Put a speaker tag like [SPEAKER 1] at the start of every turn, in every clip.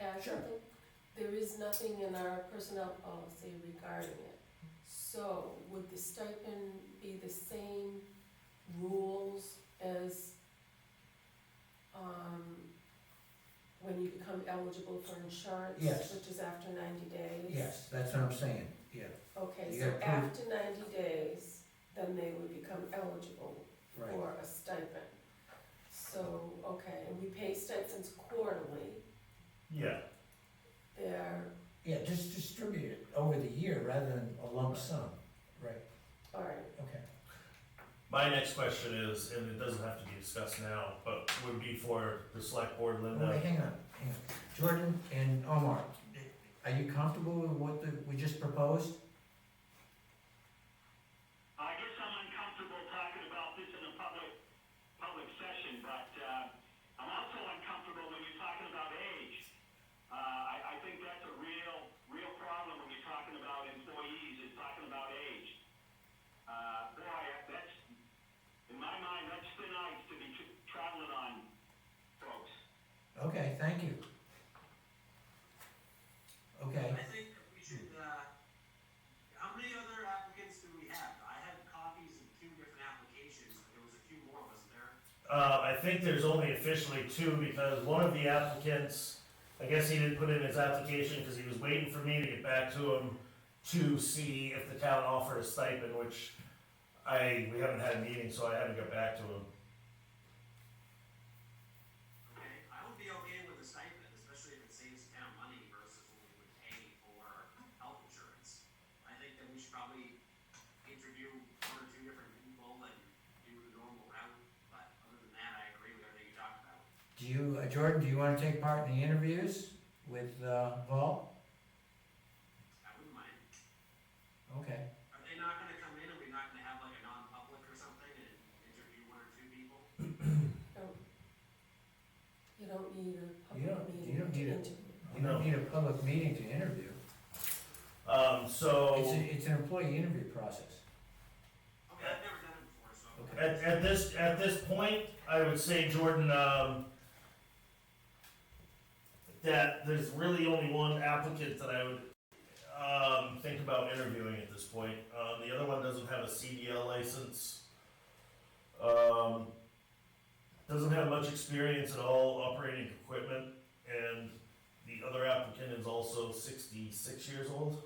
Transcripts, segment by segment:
[SPEAKER 1] add
[SPEAKER 2] Sure.
[SPEAKER 1] something? There is nothing in our personnel policy regarding it. So would the stipend be the same rules as, um, when you become eligible for insurance?
[SPEAKER 2] Yes.
[SPEAKER 1] Which is after ninety days?
[SPEAKER 2] Yes, that's what I'm saying, yeah,
[SPEAKER 1] Okay,
[SPEAKER 2] You
[SPEAKER 1] so
[SPEAKER 2] gotta prove-
[SPEAKER 1] after ninety days, then they would become eligible
[SPEAKER 2] right.
[SPEAKER 1] for a stipend. So, okay, and we pay stipends quarterly,
[SPEAKER 3] Yeah,
[SPEAKER 1] they're,
[SPEAKER 2] Yeah, just distribute it over the year rather than a lump sum, right,
[SPEAKER 1] alright,
[SPEAKER 2] okay.
[SPEAKER 3] my next question is, and it doesn't have to be discussed now, but would be for the select board,
[SPEAKER 2] Oh, wait,
[SPEAKER 3] Linda.
[SPEAKER 2] hang on, hang on. Jordan and Omar, are you comfortable with what the, we just proposed?
[SPEAKER 4] I guess I'm uncomfortable talking about this in a public, public session, but, uh, I'm also uncomfortable when you're talking about age. Uh, I, I think that's a real, real problem when you're talking about employees, is talking about age. Uh, boy, that's, in my mind, that's thin ice to be tr- traveling on, folks.
[SPEAKER 2] Okay, thank you. Okay,
[SPEAKER 5] I think we should, uh, how many other applicants do we have? I had copies of two different applications, but there was a few more, wasn't there?
[SPEAKER 3] Uh, I think there's only officially two, because one of the applicants, I guess he didn't put in his application, because he was waiting for me to get back to him to see if the town offered a stipend, which I, we haven't had a meeting, so I haven't got back to him.
[SPEAKER 5] Okay, I would be okay with a stipend, especially if it saves the town money versus what we would pay for health insurance. I think that we should probably interview one or two different people and do the normal route, but other than that, I agree with everything you talked about.
[SPEAKER 2] do you, uh, Jordan, do you wanna take part in the interviews with, uh, Paul?
[SPEAKER 5] I wouldn't mind.
[SPEAKER 2] Okay,
[SPEAKER 5] Are they not gonna come in and we're not gonna have like a non-public or something and interview one or two people?
[SPEAKER 1] you don't need a
[SPEAKER 2] You don't-
[SPEAKER 1] public
[SPEAKER 2] you
[SPEAKER 1] meeting
[SPEAKER 2] don't
[SPEAKER 1] to
[SPEAKER 2] need a-
[SPEAKER 1] interview.
[SPEAKER 2] you don't need a public meeting to interview.
[SPEAKER 3] Um,
[SPEAKER 2] It's,
[SPEAKER 3] so,
[SPEAKER 2] a- it's an employee interview process.
[SPEAKER 5] Okay, I've never done it before, so.
[SPEAKER 3] at, at this, at this point, I would say, Jordan, um, that there's really only one applicant that I would, um, think about interviewing at this point. Um, the other one doesn't have a CDL license. Um, doesn't have much experience at all operating equipment, and the other applicant is also sixty-six years old.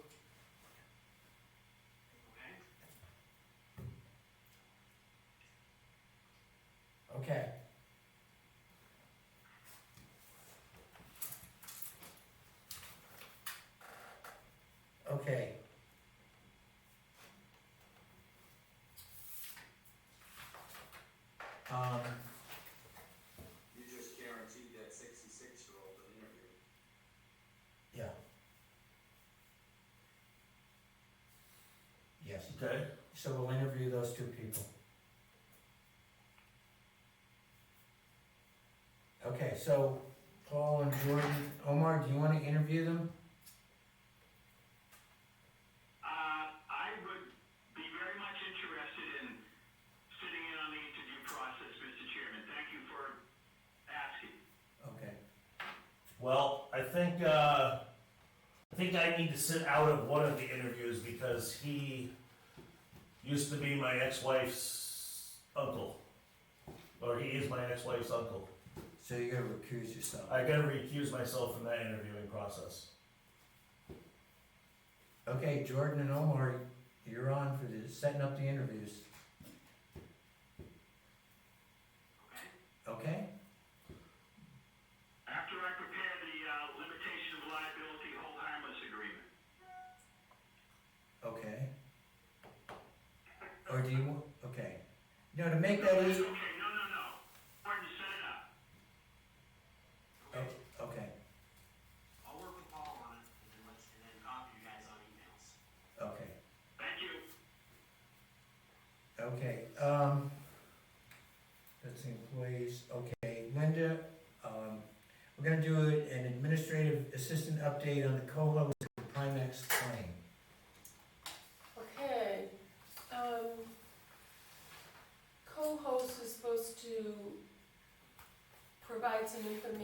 [SPEAKER 5] Okay.
[SPEAKER 2] Okay. Okay. Um,
[SPEAKER 6] You just guaranteed that sixty-six-year-old an interview.
[SPEAKER 2] yeah. Yes,
[SPEAKER 3] Okay.
[SPEAKER 2] so we'll interview those two people. Okay, so Paul and Jordan, Omar, do you wanna interview them?
[SPEAKER 4] Uh, I would be very much interested in sitting in on the interview process, Mr. Chairman. Thank you for asking.
[SPEAKER 2] Okay.
[SPEAKER 3] Well, I think uh, I think I need to sit out of one of the interviews because he used to be my ex-wife's uncle, or he is my ex-wife's uncle.
[SPEAKER 2] So you gotta recuse yourself.
[SPEAKER 3] I gotta recuse myself from that interviewing process.
[SPEAKER 2] Okay, Jordan and Omar, you're on for the, setting up the interviews,
[SPEAKER 5] Okay.
[SPEAKER 2] okay?
[SPEAKER 4] After I prepare the uh, limitation of liability hold harmless agreement.
[SPEAKER 2] Okay. Or do you, want? okay. No, to make that easy,
[SPEAKER 4] Okay, no, no, no. Gordon, set it up.
[SPEAKER 5] Okay.
[SPEAKER 2] oh, okay,
[SPEAKER 5] I'll work with Paul on it and then let, and then copy you guys on emails.
[SPEAKER 2] okay,
[SPEAKER 4] Thank you.
[SPEAKER 2] okay, um, that's the employees, okay, Linda, um, we're gonna do an administrative assistant update on the COLA with the Primex claim.
[SPEAKER 1] Okay, um, co-host is supposed to provide some information